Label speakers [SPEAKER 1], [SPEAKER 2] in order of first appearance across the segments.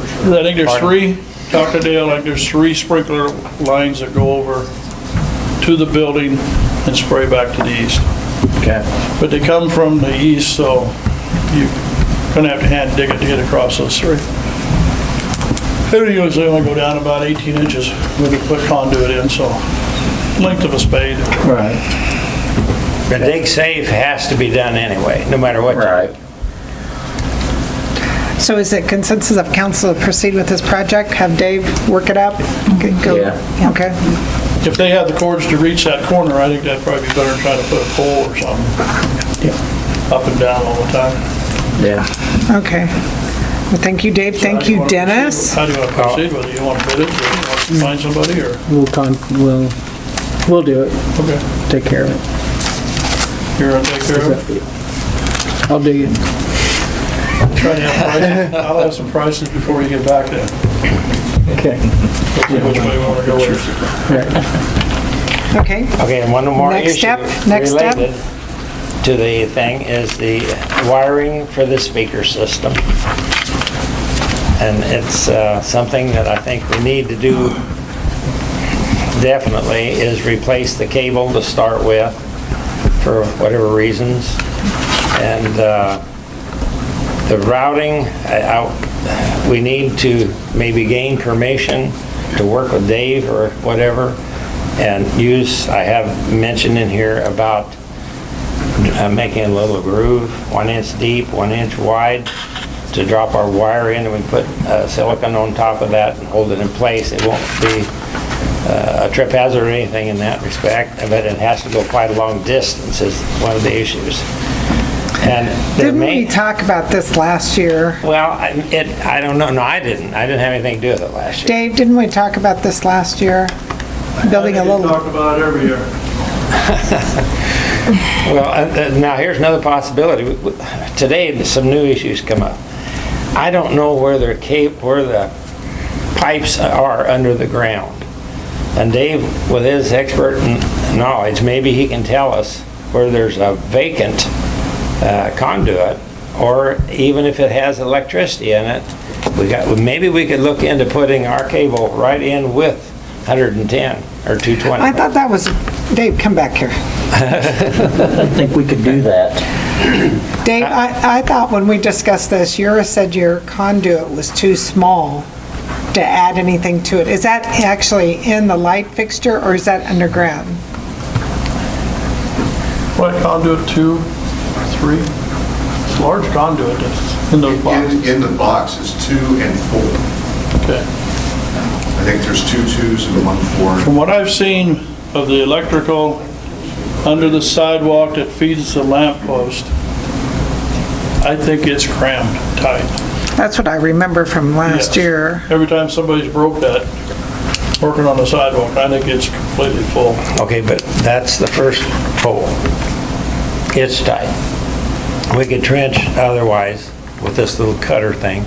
[SPEAKER 1] I think there's
[SPEAKER 2] Pardon?
[SPEAKER 1] three, Dr. Dale, I think there's three sprinkler lines that go over to the building and spray back to the east.
[SPEAKER 2] Okay.
[SPEAKER 1] But they come from the east, so you're gonna have to hand dig it to get across those three. They usually only go down about 18 inches when you put conduit in, so length of a spade.
[SPEAKER 2] Right.
[SPEAKER 3] The dig safe has to be done anyway, no matter what. you do.
[SPEAKER 2] Right.
[SPEAKER 4] So is it consensus of council to proceed with this project? Have Dave work it up? Go- go-
[SPEAKER 2] Yeah.
[SPEAKER 4] Okay.
[SPEAKER 1] If they had the cords to reach that corner, I think that'd probably be better than trying to put a pole or something up and down all the time.
[SPEAKER 2] Yeah.
[SPEAKER 4] Okay. Well, thank you, Dave. Thank
[SPEAKER 1] How do
[SPEAKER 4] you,
[SPEAKER 1] wanna proceed?
[SPEAKER 4] Dennis.
[SPEAKER 1] How do you want to proceed with it? You want to bid it, or you want to find somebody, or,
[SPEAKER 5] We'll con, we'll, we'll do it,
[SPEAKER 1] okay,
[SPEAKER 5] take care of it.
[SPEAKER 1] you're gonna take care of it?
[SPEAKER 5] I'll dig it.
[SPEAKER 1] Try to have prices, I'll have some prices before you get back then,
[SPEAKER 5] Okay.
[SPEAKER 1] which way we want to go with it.
[SPEAKER 4] Okay.
[SPEAKER 3] Okay, and one more
[SPEAKER 4] Next
[SPEAKER 3] issue
[SPEAKER 4] step, next step.
[SPEAKER 3] related to the thing is the wiring for the speaker system. And it's uh, something that I think we need to do definitely is replace the cable to start with for whatever reasons. And uh, the routing, I- I- we need to maybe gain permission to work with Dave or whatever, and use, I have mentioned in here about uh, making a little groove, one inch deep, one inch wide, to drop our wire in, and we put uh, silicone on top of that and hold it in place. It won't be uh, a trip hazard or anything in that respect, but it has to go quite a long distance is one of the issues. And there
[SPEAKER 4] Didn't
[SPEAKER 3] may-
[SPEAKER 4] we talk about this last year?
[SPEAKER 3] well, I- it, I don't know, no, I didn't, I didn't have anything to do with it last year.
[SPEAKER 4] Dave, didn't we talk about this last year? Building a
[SPEAKER 1] We
[SPEAKER 4] little,
[SPEAKER 1] Talk about it every year.
[SPEAKER 3] Well, uh, uh, now, here's another possibility, We- we- today, some new issues come up. I don't know where the cap, where the pipes are under the ground. And Dave, with his expert kn- knowledge, maybe he can tell us where there's a vacant uh, conduit, or even if it has electricity in it, we got, maybe we could look into putting our cable right in with 110 or 220.
[SPEAKER 4] I thought that was, Dave, come back here.
[SPEAKER 2] I think we could do that.
[SPEAKER 4] Dave, I, I thought when we discussed this, Yura said your conduit was too small to add anything to it. Is that actually in the light fixture or is that underground?
[SPEAKER 1] What conduit, two, three? It's large conduit that's in those
[SPEAKER 6] In,
[SPEAKER 1] boxes.
[SPEAKER 6] in the box is two and four.
[SPEAKER 1] Okay.
[SPEAKER 6] I think there's two twos and one four.
[SPEAKER 1] From what I've seen of the electrical under the sidewalk that feeds the lamp post, I think it's crammed tight.
[SPEAKER 4] That's what I remember from last
[SPEAKER 1] Yes.
[SPEAKER 4] year.
[SPEAKER 1] Every time somebody's broke that, working on the sidewalk, I think it's completely full.
[SPEAKER 3] Okay, but that's the first pole. It's tight. We could trench otherwise with this little cutter thing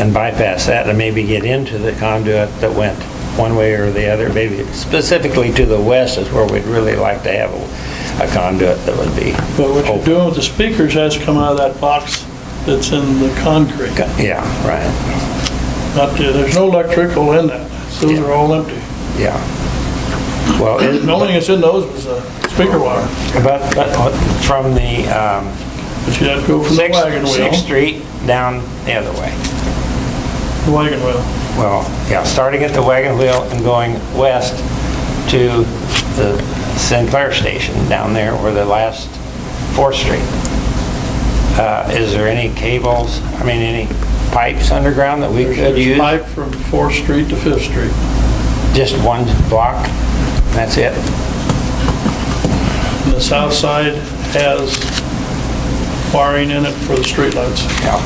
[SPEAKER 3] and bypass that and maybe get into the conduit that went one way or the other, maybe specifically to the west is where we'd really like to have a a conduit that would be.
[SPEAKER 1] But what you're
[SPEAKER 3] open.
[SPEAKER 1] doing with the speakers has to come out of that box that's in the concrete.
[SPEAKER 3] Yeah, right,
[SPEAKER 1] Not the, there's no electrical in that. Those are all empty.
[SPEAKER 3] yeah. Well, it-
[SPEAKER 1] The only thing that's in those was the speaker wire.
[SPEAKER 3] but, but from the, um,
[SPEAKER 1] But you have to go from the
[SPEAKER 3] Sixth
[SPEAKER 1] wagon
[SPEAKER 3] Sixth
[SPEAKER 1] wheel,
[SPEAKER 3] Street down the other way.
[SPEAKER 1] the wagon wheel.
[SPEAKER 3] Well, yeah, starting at the wagon wheel and going west to the Sinclair Station down there where the last 4th Street. Uh, Is there any cables, I mean, any pipes underground that we could
[SPEAKER 1] There's
[SPEAKER 3] use?
[SPEAKER 1] pipe from Fourth Street to Fifth Street.
[SPEAKER 3] Just one block, that's it?
[SPEAKER 1] And the south side has wiring in it for the streetlights.
[SPEAKER 3] Yeah.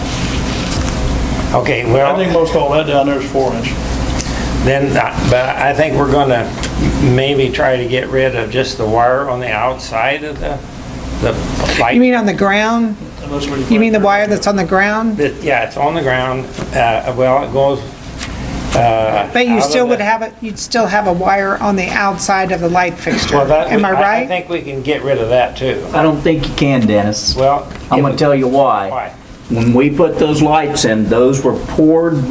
[SPEAKER 3] Okay,
[SPEAKER 1] I think
[SPEAKER 3] well,
[SPEAKER 1] most all that down there is four inch.
[SPEAKER 3] then, uh, but I think we're gonna maybe try to get rid of just the wire on the outside of the, the light.
[SPEAKER 4] You mean on the ground?
[SPEAKER 1] Unless we
[SPEAKER 4] You mean the wire that's on the ground?
[SPEAKER 3] It- Yeah, it's on the ground. Uh, Well, it goes, uh...
[SPEAKER 4] But
[SPEAKER 3] out
[SPEAKER 4] you
[SPEAKER 3] of
[SPEAKER 4] still would
[SPEAKER 3] the-
[SPEAKER 4] have it, you'd still have a wire on the outside of the light fixture.
[SPEAKER 3] Well, that-
[SPEAKER 4] Am I
[SPEAKER 3] I
[SPEAKER 4] right?
[SPEAKER 3] think we can get rid of that, too.
[SPEAKER 5] I don't think you can, Dennis.
[SPEAKER 3] Well...
[SPEAKER 5] I'm gonna tell you why.
[SPEAKER 3] Why?
[SPEAKER 5] When we put those lights in, those were poured